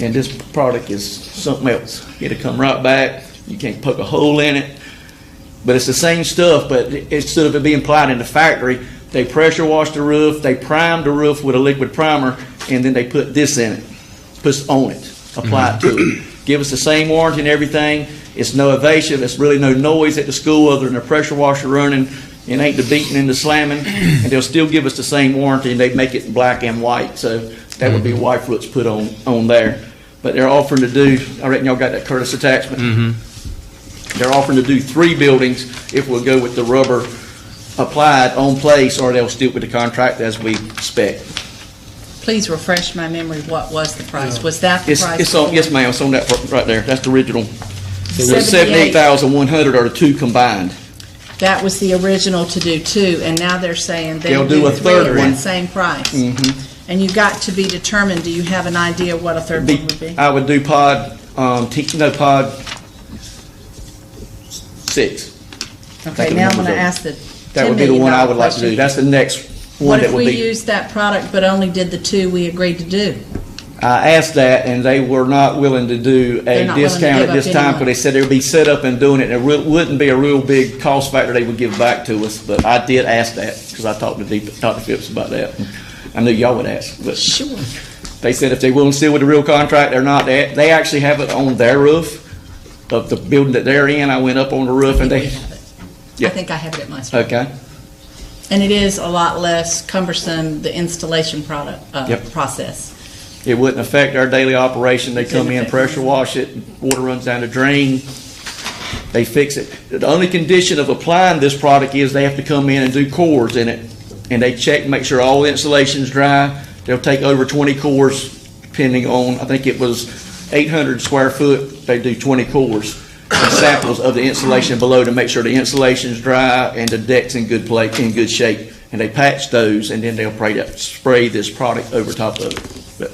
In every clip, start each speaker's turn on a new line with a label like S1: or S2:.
S1: and this product is something else. It'll come right back. You can't poke a hole in it. But it's the same stuff, but it- instead of it being applied in the factory, they pressure wash the roof, they prime the roof with a liquid primer, and then they put this in it, puts on it, apply it to it. Give us the same warranty and everything. It's no evasive, it's really no noise at the school other than the pressure washer running, and ain't the beating and the slamming, and they'll still give us the same warranty, and they make it black and white, so that would be why Foots put on, on there. But they're offering to do, I reckon y'all got that Curtis attachment? They're offering to do three buildings if we'll go with the rubber applied on place, or they'll stick with the contract as we spec.
S2: Please refresh my memory, what was the price? Was that the
S1: It's,
S2: price?
S1: it's on, yes, ma'am, it's on that part right there, that's the original. Seventy-eight
S2: 78.
S1: thousand one hundred are the two combined.
S2: That was the original to do two, and now they're saying they'll
S1: They'll do
S2: do
S1: a
S2: three
S1: third
S2: at
S1: one. Mm-hmm.
S2: that same price. And you got to be determined, do you have an idea what a third
S1: Be-
S2: one would be?
S1: I would do pod, um, T, no, pod six.
S2: Okay,
S1: the
S2: now I'm
S1: numbers
S2: gonna
S1: are-
S2: ask the
S1: That
S2: ten
S1: would be the
S2: million
S1: one I
S2: dollar
S1: would like to do,
S2: question.
S1: that's the next one
S2: What
S1: that
S2: if
S1: would
S2: we
S1: be.
S2: used that product but only did the two we agreed to do?
S1: I asked that, and they were not willing to do
S2: They're
S1: a
S2: not willing to
S1: discount
S2: give
S1: at
S2: up
S1: this
S2: any
S1: time,
S2: money.
S1: because they said it would be set up and doing it, and it real- wouldn't be a real big cost factor they would give back to us, but I did ask that, because I talked to Deep, talked to Phipps about that. I knew y'all would ask, but
S2: Sure.
S1: they said if they willing to seal with the real contract, they're not, they, they actually have it on their roof of the building that they're in, I went up on the roof and
S2: I
S1: they, Yeah.
S2: think I have it at my store.
S1: okay,
S2: And it is a lot less cumbersome, the installation product, uh,
S1: Yep.
S2: process.
S1: it wouldn't affect our daily operation, they come in, pressure wash it, water runs down the drain, they fix it. The only condition of applying this product is they have to come in and do cores in it, and they check, make sure all the insulation's dry. They'll take over twenty cores, depending on, I think it was eight hundred square foot, they do twenty cores. and Samples of the insulation below to make sure the insulation's dry and the deck's in good plate, in good shape. And they patch those, and then they'll spray that, spray this product over top of it. But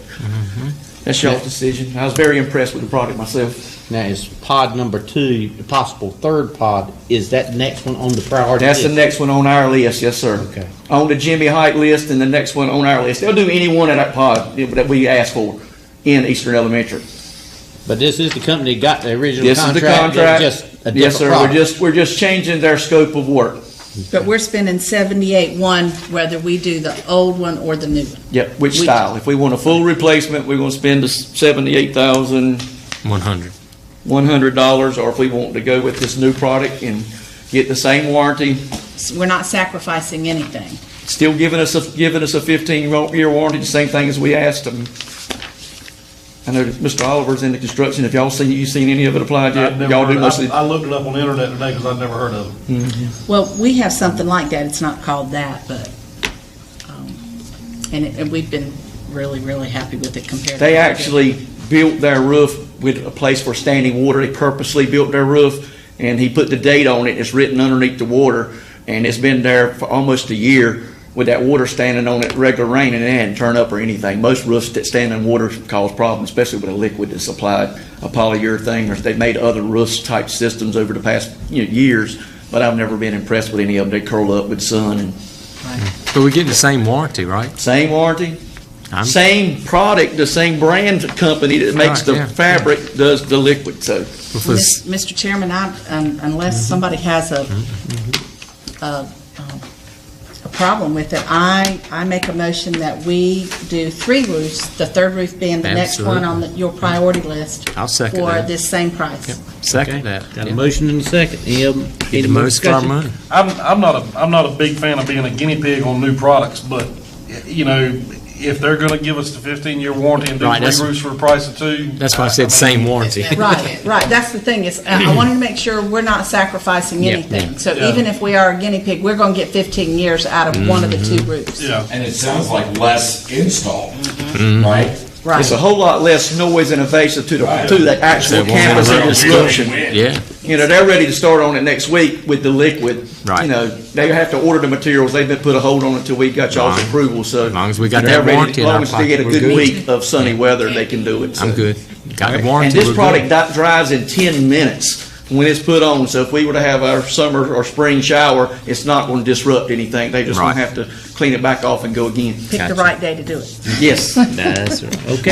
S1: that's y'all's decision. I was very impressed with the product myself.
S3: Now, is pod number two, the possible third pod, is that next one on the priority
S1: That's
S3: list?
S1: the next one on our list, yes, sir.
S3: Okay.
S1: On the Jimmy Height list and the next one on our list. They'll do any one of that pod that we ask for in Eastern Elementary.
S3: But this is the company that got the original
S1: This is
S3: contract.
S1: the
S3: they're
S1: contract.
S3: Just a different
S1: Yes, sir, we're
S3: product.
S1: just, we're just changing their scope of work.
S2: But we're spending seventy-eight one whether we do the old one or the new one.
S1: Yep, which
S2: We-
S1: style. If we want a full replacement, we're gonna spend the seventy-eight thousand
S4: 100.
S1: one hundred dollars, or if we want to go with this new product and get the same warranty,
S2: S- We're not sacrificing anything.
S1: still giving us, a giving us a fifteen-year warranty, the same thing as we asked them. I know that Mr. Oliver's in the construction, if y'all seen, you seen any of it applied
S5: I've
S1: yet?
S5: never
S1: Y'all
S5: heard
S1: do
S5: of-
S1: mostly,
S5: I I looked it up on the internet today because I'd never heard of it.
S2: Well, we have something like that. It's not called that, but, um, and it, and we've been really, really happy with it compared to.
S1: they actually built their roof with a place for standing water, they purposely built their roof, and he put the date on it, it's written underneath the water, and it's been there for almost a year with that water standing on it, regular rain, and it hadn't turned up or anything. Most roofs that stand in water cause problems, especially with a liquid that's applied, a polyurethane, or they've made other roofs type systems over the past, you know, years, but I've never been impressed with any of them, they curl up with sun and
S4: But we're getting the same warranty, right?
S1: same warranty,
S4: I'm-
S1: same product, the same brand company that makes
S4: Right,
S1: the
S4: yeah,
S1: fabric does the liquid. So
S2: Mis- Mr. Chairman, I, un- unless somebody has a,
S4: Mm-hmm.
S2: a, um, a problem with it, I, I make a motion that we do three roofs, the third roof being the next one on the- your priority list.
S4: I'll second
S2: For
S4: that.
S2: this same price.
S4: Second that.
S3: Got a motion and a second. Any of them?
S4: Get
S3: Any
S4: the
S3: more
S4: most for our
S3: discussion?
S4: money.
S5: I'm, I'm not a, I'm not a big fan of being a guinea pig on new products, but, y- you know, if they're gonna give us the fifteen-year warranty and do
S4: Right,
S5: three
S4: that's-
S5: roofs for the price of two.
S4: That's why I said
S5: mean,
S4: same warranty.
S2: Right, right, that's the thing, is, uh, I wanted to make sure we're not sacrificing
S4: Yeah,
S2: anything. So
S5: Yeah.
S2: even if we are a guinea pig, we're gonna get fifteen years out of one of the two roofs.
S5: Yeah,
S6: And it sounds like less install, right?
S2: Right.
S1: it's a whole lot less noise and invasive to the
S6: Right.
S1: to the actual
S4: They won't
S1: campus and
S4: interrupt.
S1: disruption.
S4: Yeah.
S1: You know, they're ready to start on it next week with the liquid.
S4: Right.
S1: You know, they have to order the materials. They've been put a hold on it until we got y'all's
S4: Right.
S1: approval. So
S4: As long as we got
S1: they're
S4: that
S1: ready-
S4: warranty in
S1: as long
S4: our
S1: as they get a
S4: pocket, we're
S1: good,
S4: good.
S1: week of sunny weather, they can do it. So.
S4: I'm good. Got a
S1: And
S4: warranty.
S1: this
S4: we're
S1: product
S4: good.
S1: di- dries in 10 minutes when it's put on, so if we were to have our summer or spring shower, it's not going to disrupt anything. They just going
S4: Right.
S1: to have to clean it back off and go again.
S2: Pick the
S4: Gotcha.
S2: right day to do it.
S1: Yes.
S4: That's right.
S3: Okay.